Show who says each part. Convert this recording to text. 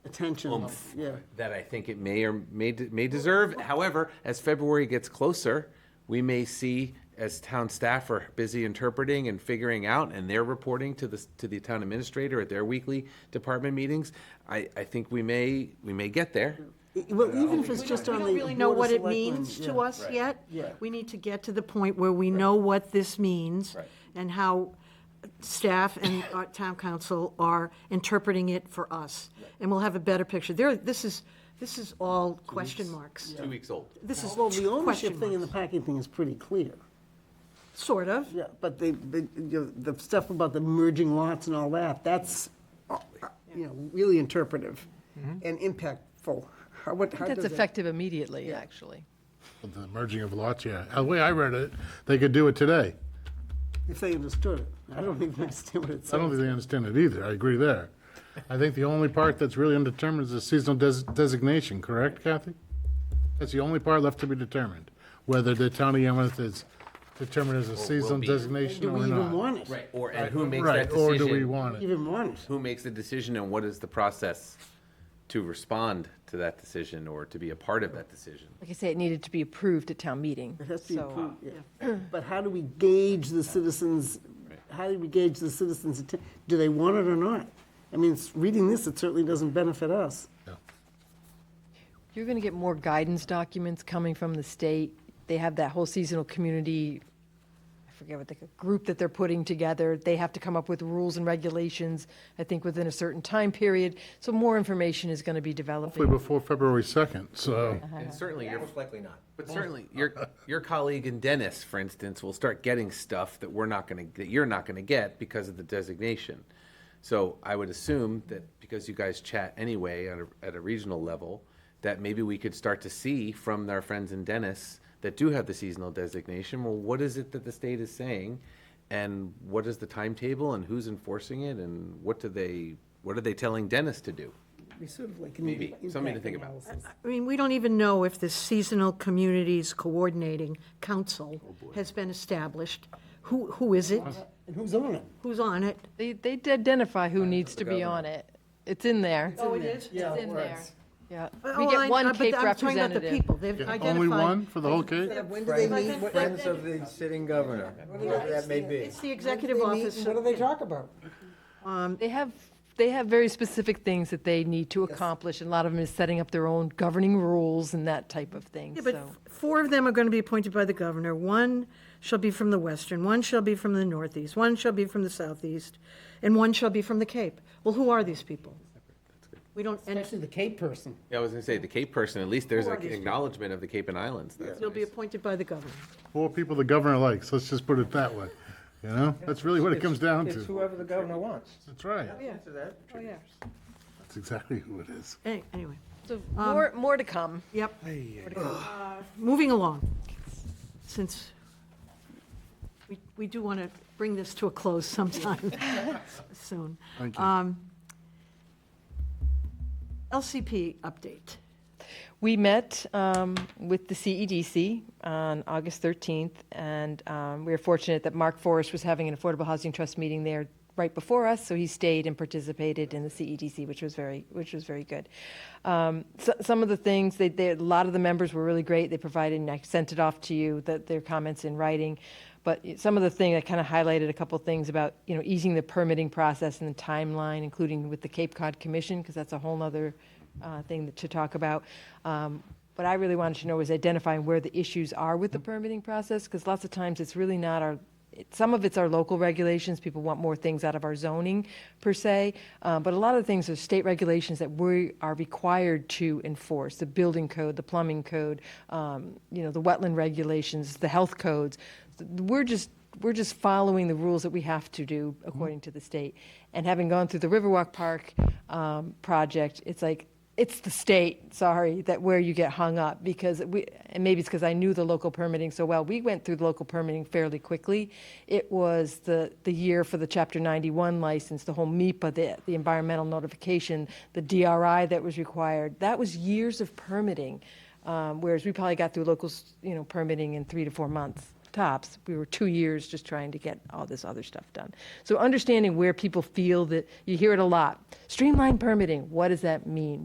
Speaker 1: attention,
Speaker 2: oomph
Speaker 1: yeah.
Speaker 2: that I think it may or may, de- may deserve. However, as February gets closer, we may see as town staff are busy interpreting and figuring out, and they're reporting to the, s- to the town administrator at their weekly department meetings, I, I think we may, we may get there.
Speaker 1: E, Well, even if it's just
Speaker 3: We
Speaker 1: on the
Speaker 3: don't really know
Speaker 1: Board of
Speaker 3: what it
Speaker 1: Selectmen,
Speaker 3: means
Speaker 1: yeah.
Speaker 3: to us yet.
Speaker 1: Yeah.
Speaker 3: We need to get to the point where we know what this means
Speaker 2: Right.
Speaker 3: and how staff and our town council are interpreting it for us. And we'll have a better picture. There, this is, this is all question marks.
Speaker 2: Two weeks old.
Speaker 3: This is
Speaker 1: Well, the ownership
Speaker 3: question
Speaker 1: thing and the
Speaker 3: marks,
Speaker 1: packing thing is pretty clear.
Speaker 3: sort of.
Speaker 1: Yeah, but they, they- you know, the stuff about the merging lots and all that, that's, uh, you know, really interpretive
Speaker 2: Mm-hmm.
Speaker 1: and impactful. How, what, how does
Speaker 4: That's
Speaker 1: that?
Speaker 4: effective immediately, actually.
Speaker 5: The merging of lots, yeah. The way I read it, they could do it today.
Speaker 1: If they understood it, I don't even understand what it
Speaker 5: I
Speaker 1: says.
Speaker 5: don't think they understand it either. I agree there. I think the only part that's really undetermined is the seasonal des- designation, correct, Kathy? That's the only part left to be determined, whether the town of Yarmouth is determined as a seasonal
Speaker 2: be.
Speaker 5: designation
Speaker 1: Do
Speaker 5: or
Speaker 1: we even
Speaker 5: not.
Speaker 1: want it?
Speaker 2: Right, or, and who makes that
Speaker 5: Right,
Speaker 2: decision?
Speaker 5: or do we want it?
Speaker 1: Even want it?
Speaker 2: Who makes the decision and what is the process to respond to that decision or to be a part of that decision?
Speaker 4: Like I say, it needed to be approved at town meeting.
Speaker 1: It has to be
Speaker 4: so-
Speaker 1: approved, uh, yeah. But how do we gauge the citizens, how do we gauge the citizens, atten- do they want it or not? I mean, it's- reading this, it certainly doesn't benefit us.
Speaker 4: You're going to get more guidance documents coming from the state. They have that whole seasonal community, I forget what the group that they're putting together. They have to come up with rules and regulations, I think, within a certain time period. So more information is going to be
Speaker 5: Hopefully
Speaker 4: developing.
Speaker 5: before February 2nd, so.
Speaker 2: And certainly, your
Speaker 6: Uh-huh. Most likely not.
Speaker 2: But certainly, your, your colleague in Dennis, for instance, will start getting stuff that we're not gonna, that you're not gonna get because of the designation. So I would assume that because you guys chat anyway at a, at a regional level, that maybe we could start to see from our friends in Dennis that do have the seasonal designation, well, what is it that the state is saying? And what is the timetable and who's enforcing it and what do they, what are they telling Dennis to do?
Speaker 1: We sort of like.
Speaker 2: Maybe, something to think about.
Speaker 3: I mean, we don't even know if the Seasonal Communities Coordinating Council
Speaker 1: Oh,
Speaker 3: has been established. Who, who is it?
Speaker 1: And who's on it?
Speaker 3: Who's on it?
Speaker 4: They, they did identify who needs to be on it. It's in there.
Speaker 3: Oh, it is?
Speaker 1: Yeah,
Speaker 4: It's in there. Yeah. We
Speaker 3: Well, I-
Speaker 4: get
Speaker 3: Oh, I- uh,
Speaker 4: one
Speaker 3: but
Speaker 4: cake
Speaker 3: I'm talking about the
Speaker 4: representative.
Speaker 3: people. They've identified.
Speaker 5: Only one for the whole cake?
Speaker 1: When do they meet?
Speaker 6: Friends of the sitting governor, whoever that may be.
Speaker 3: It's the executive office.
Speaker 1: What do they talk about?
Speaker 4: They have, they have very specific things that they need to accomplish, and a lot of them is setting up their own governing rules and that type of thing,
Speaker 3: Yeah,
Speaker 4: so.
Speaker 3: but f- four of them are going to be appointed by the governor. One shall be from the western, one shall be from the northeast, one shall be from the southeast, and one shall be from the Cape. Well, who are these people? We don't, and
Speaker 1: Actually, the Cape person.
Speaker 2: Yeah, I was gonna say, the Cape person, at least there's an acknowledgement of the Cape and Islands. That's
Speaker 3: they'll be
Speaker 2: nice.
Speaker 3: appointed by the governor.
Speaker 5: Four people the governor likes, let's just put it that way. You know, that's really what it comes down
Speaker 6: It's
Speaker 5: to.
Speaker 6: whoever the governor wants.
Speaker 5: That's right.
Speaker 6: Answer that.
Speaker 3: Oh, yeah.
Speaker 5: That's exactly who it is.
Speaker 3: Any- Anyway,
Speaker 4: So more, more to come.
Speaker 3: yep. Moving along, since we, we do want to bring this to a close sometime soon.
Speaker 5: Thank you.
Speaker 3: Um, LCP update.
Speaker 4: We met um, with the CEDC on August 13th, and um, we were fortunate that Mark Forrest was having an Affordable Housing Trust meeting there right before us, so he stayed and participated in the CEDC, which was very, which was very good. Um, so- Some of the things, they, they, a lot of the members were really great. They provided, and I sent it off to you, that their comments in writing. But some of the thing, I kind of highlighted a couple things about, you know, easing the permitting process and the timeline, including with the Cape Cod Commission, because that's a whole nother uh, thing to talk about. Um, What I really wanted to know was identifying where the issues are with the permitting process, because lots of times it's really not our, it- some of it's our local regulations, people want more things out of our zoning per se, uh, but a lot of things are state regulations that we are required to enforce, the building code, the plumbing code, um, you know, the wetland regulations, the health codes. We're just we're just following the rules that we have to do according to the state. And having gone through the Riverwalk Park um, project, it's like, it's the state, sorry, that where you get hung up because we, and maybe it's because I knew the local permitting so well. We went through the local permitting fairly quickly. It was the, the year for the Chapter 91 license, the whole MIPA, the, the environmental notification, the DRI that was required. That was years of permitting, um, whereas we probably got through locals, you know, permitting in three to four months tops. We were two years just trying to get all this other stuff done. So understanding where people feel that, you hear it a lot, streamline permitting, what does that mean?